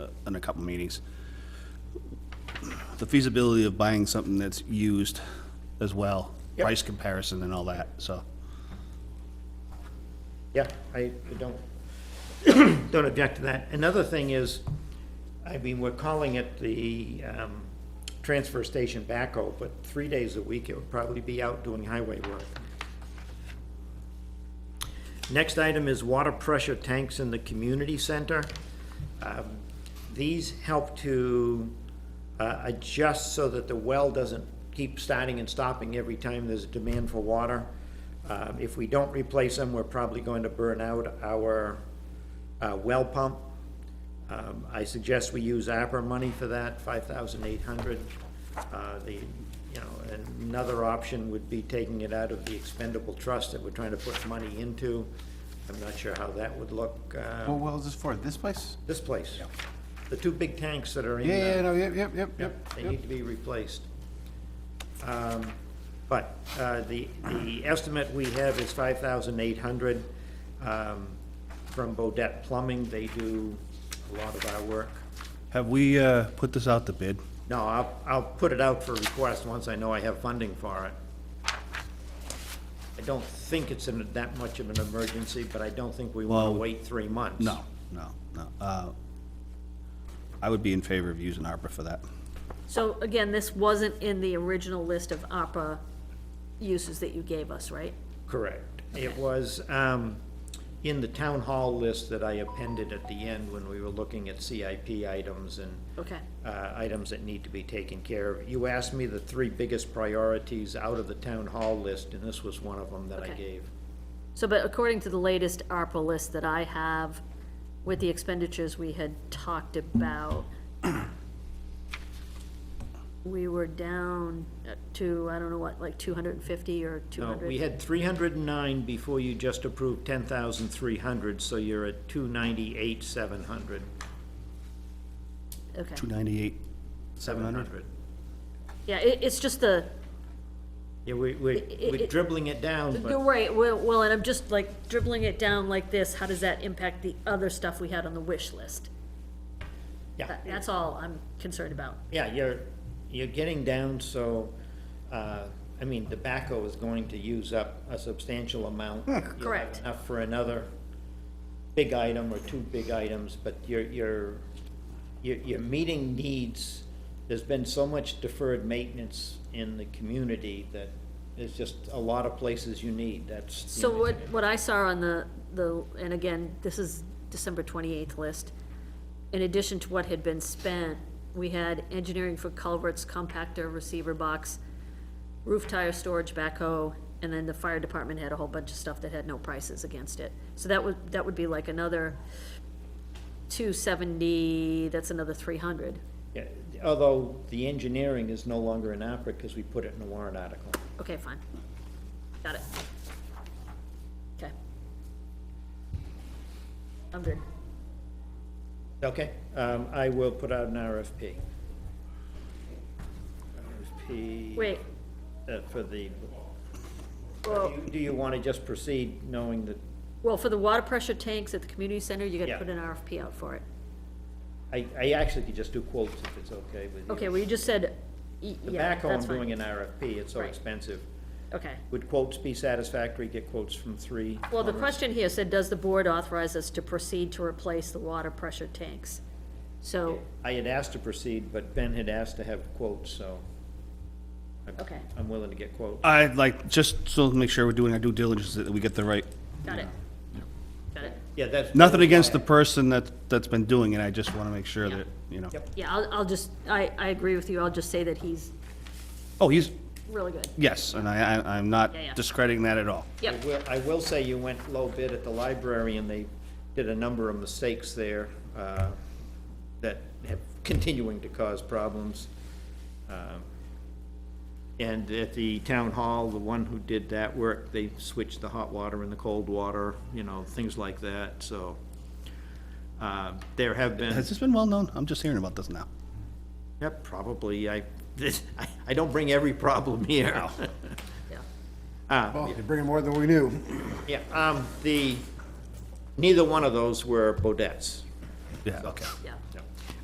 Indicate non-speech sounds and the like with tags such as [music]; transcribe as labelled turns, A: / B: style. A: uh, in a couple meetings. The feasibility of buying something that's used as well,
B: Yep.
A: price comparison and all that, so.
B: Yeah, I I don't, don't [coughs] object to that. Another thing is, I mean, we're calling it the um, transfer station backhoe, but three days a week, it would probably be out doing highway work. Next item is water pressure tanks in the community center. Um, These help to uh, adjust so that the well doesn't keep starting and stopping every time there's a demand for water. Um, If we don't replace them, we're probably going to burn out our uh, well pump. Um, I suggest we use APRA money for that, five thousand eight hundred. Uh, The, you know, another option would be taking it out of the expendable trust that we're trying to put money into. I'm not sure how that would look, uh,
C: What Oh, well is this for? This place?
B: this place. The two big tanks that are in
C: Yeah,
B: there.
C: yeah, no, yep, yep, yep, yep.
B: They
C: yep.
B: need to be replaced. Um, But uh, the, the estimate we have is five thousand eight hundred Um, from Bodett Plumbing. They do a lot of our work.
A: Have we, uh, put this out to bid?
B: No, I'll, I'll put it out for request once I know I have funding for it. I don't think it's in that much of an emergency, but I don't think we want to
A: Well,
B: wait three months.
A: No, no, no. Uh, I would be in favor of using ARPA for that.
D: So again, this wasn't in the original list of ARPA uses that you gave us, right?
B: Correct. It was um, in the town hall list that I appended at the end when we were looking at CIP items and
D: Okay.
B: uh, items that need to be taken care of. You asked me the three biggest priorities out of the town hall list, and this was one of them that I
D: Okay.
B: gave.
D: So, but according to the latest ARPA list that I have, with the expenditures we had talked about, we were down uh, to, I don't know what, like two hundred and fifty or two
B: No,
D: hundred?
B: we had three hundred and nine before you just approved ten thousand three hundred, so you're at two ninety-eight, seven hundred.
D: Okay,
A: Two ninety-eight,
B: Seven hundred.
D: yeah, it, it's just the,
B: Yeah, we, we,
D: It-
B: we're
D: it-
B: dribbling it down,
D: you're
B: but
D: right, well, well, and I'm just like dribbling it down like this, how does that impact the other stuff we had on the wish list?
B: yeah.
D: That- That's all I'm concerned about.
B: Yeah, you're, you're getting down, so, uh, I mean, tobacco is going to use up a substantial amount. You'll have
D: Correct.
B: Enough for another big item or two big items, but you're, you're, you're, you're meeting needs. There's been so much deferred maintenance in the community that there's just a lot of places you need, that's. the
D: So
B: only
D: what,
B: thing.
D: what I saw on the, the, and again, this is December twenty-eighth list, in addition to what had been spent, we had engineering for culverts, compactor, receiver box, roof tire storage, backhoe, and then the fire department had a whole bunch of stuff that had no prices against it. So that would, that would be like another two seventy, that's another three hundred.
B: Yeah, Although the engineering is no longer in opera because we put it in a warrant article.
D: Okay, fine. Got it. Okay. I'm good.
B: Okay, um, I will put out an RFP. RFP.
D: Wait,
B: uh, For the,
D: well,
B: do you want to just proceed knowing that,
D: well, for the water pressure tanks at the community center, you
B: Yeah.
D: gotta put an RFP out for it.
B: I, I actually could just do quotes if it's okay with you.
D: Okay, well, you just said, y-
B: The
D: yeah,
B: backhoe, I'm
D: that's
B: doing an
D: fine.
B: RFP, it's so
D: Right.
B: expensive.
D: Okay.
B: Would quotes be satisfactory, get quotes from three?
D: Well, the question here said, does the board authorize us to proceed to replace the water pressure tanks? So,
B: I had asked to proceed, but Ben had asked to have quotes, so. I'm-
D: Okay.
B: I'm willing to get quotes.
A: I'd like, just so to make sure we're doing our due diligence, that we get the right,
D: got it. Got it.
B: Yeah, that's.
A: nothing against the person that, that's been doing it, I just wanna make sure
D: Yeah.
A: that, you know.
B: Yep.
D: Yeah, I'll, I'll just, I, I agree with you. I'll just say that he's
A: Oh, he's,
D: really good.
A: yes, and I, I, I'm not
D: Yeah, yeah.
A: discrediting that at all.
B: I
D: Yep,
B: will, I will say you went low bid at the library and they did a number of mistakes there, uh, that have continuing to cause problems. Um, And at the town hall, the one who did that work, they switched the hot water and the cold water, you know, things like that, so. Uh, there have been.
A: Has this been well-known? I'm just hearing about this now.
B: Yep, probably. I, this, I, I don't bring every problem here.
D: yeah.
C: Well, you're bringing more than we knew.
B: [laughs] Yeah, um, the, neither one of those were Bodett's.
A: Yeah, okay.
D: Yeah.
B: Yep.